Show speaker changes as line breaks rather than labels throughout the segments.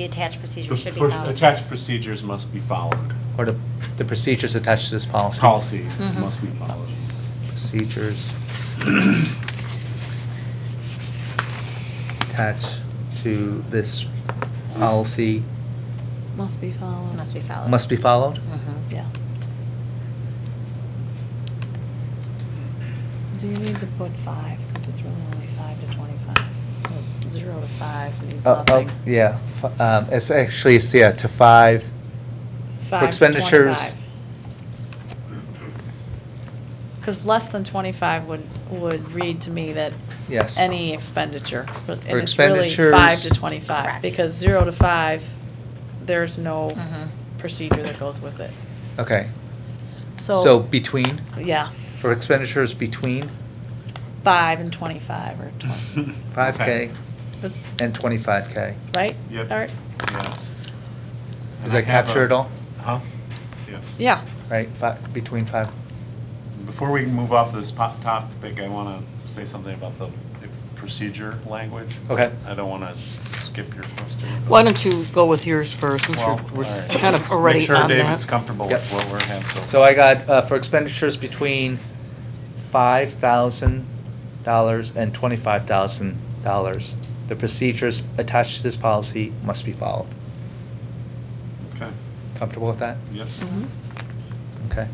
The attached procedure
The
should be
pro-
followed.
Attached procedures must be followed.
Or the, the procedures attached to this policy?
Policy must be followed.
Procedures attached to this policy
Must be followed.
Must be followed.
must be followed?
Mhm.
Yeah. Do you need to put five, because it's really only five to twenty-five, so zero to five means
Uh, oh,
nothing.
Yeah, f- um, it's actually, it's, yeah, to five,
Five to
expenditures-
Because less than twenty-five would, would read to me that
yes.
any expenditure, but,
Or
and it's really five
expenditures.
to twenty-five.
Correct.
Because zero to five, there's no
Mhm.
procedure that goes with it.
Okay,
So.
so between,
Yeah,
for expenditures between
five and twenty-five or twenty,
five K
Okay.
was-
and twenty-five K.
right?
Yep.
All right,
Yes.
Does
And I
that
have
capture
a-
it all?
Huh? Yes.
yeah.
Right, fi- between five,
Before we move off this pop topic, I want to say something about the procedure language.
Okay.
I don't want to skip your question.
Why don't you go with yours first, since
Well,
you're- we're
all right.
kind
Just
of already on
Make sure David's
that?
comfortable with
Yep.
what we're having.
So I got, uh, for expenditures between five thousand dollars and twenty-five thousand dollars, the procedures attached to this policy must be followed.
Okay,
Comfortable with that?
yep.
Okay.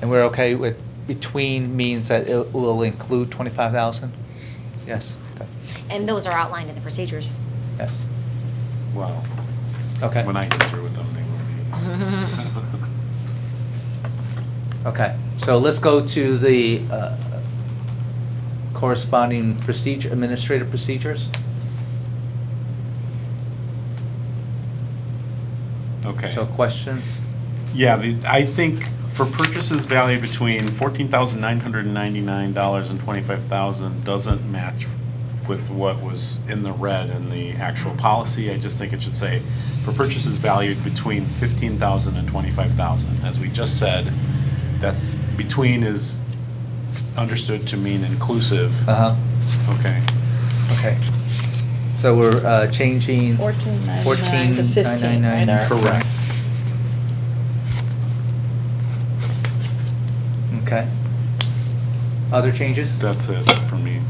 And we're okay with, between means that it will include twenty-five thousand? Yes, okay,
And those are outlined in the procedures.
yes,
Wow.
okay,
When I get through with them, they will be.
okay. So let's go to the uh, corresponding procedure, administrative procedures.
Okay.
So questions?
Yeah, the, I think for purchases valued between fourteen thousand nine hundred and ninety-nine dollars and twenty-five thousand doesn't match with what was in the red in the actual policy. I just think it should say for purchases valued between fifteen thousand and twenty-five thousand. As we just said, that's, between is understood to mean inclusive.
Uh-huh,
Okay.
okay. So we're uh, changing.
Fourteen ninety-nine to
14,999.
fifteen, right, Art?
Correct.
Okay. Other changes?
That's it for me.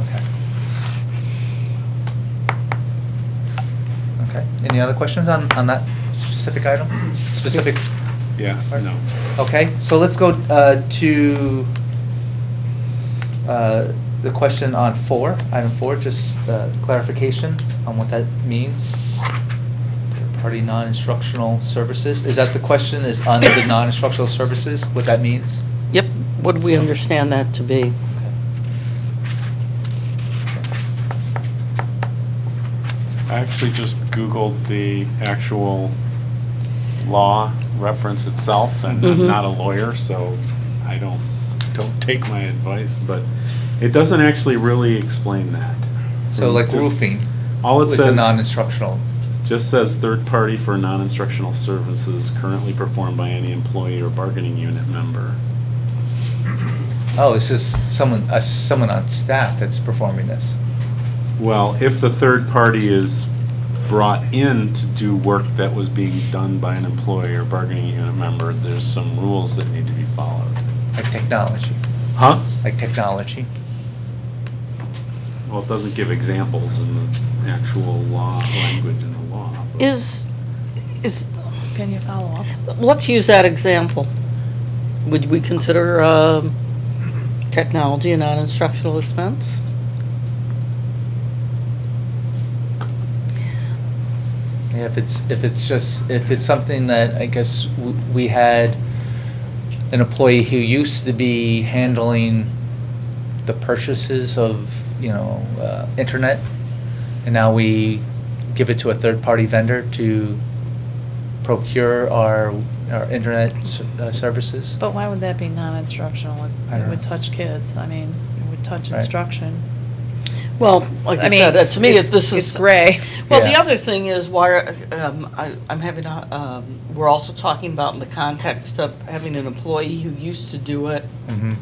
Okay. Okay, any other questions on, on that specific item? Specific,
Yeah, no.
okay, so let's go uh, to uh, the question on four, item four, just uh, clarification on what that means. Party non-instructional services, is that the question, is under the non-instructional services, what that means?
Yep, what do we understand that to be?
I actually just Googled the actual law reference itself, and I'm
Mhm.
not a lawyer, so I don't, don't take my advice, but it doesn't actually really explain that.
So like
Just-
roofing
All it
is a
says-
non-instructional,
Just says third party for non-instructional services currently performed by any employee or bargaining unit member.
oh, it's just someone, uh, someone on staff that's performing this.
Well, if the third party is brought in to do work that was being done by an employee or bargaining unit member, there's some rules that need to be followed.
Like technology,
Huh?
like technology.
Well, it doesn't give examples in the actual law, language in the law. but-
Is, is,
Can you follow up?
let's use that example. Would we consider um, technology a non-instructional expense?
Yeah, if it's, if it's just, if it's something that I guess w- we had an employee who used to be handling the purchases of, you know, uh, internet, and now we give it to a third-party vendor to procure our, our internet s- uh, services.
But why would that be non-instructional? It-
I don't
It would
know.
touch kids, I mean, it would touch
Right.
instruction.
Well, like
I
I
mean,
said, uh,
it's-
to me,
it's-
it's- this
it's
is.
gray.
Well, the
Yeah.
other thing is why, are- um, I, I'm having, a- um, we're also talking about in the context of having an employee who used to do it
Mhm.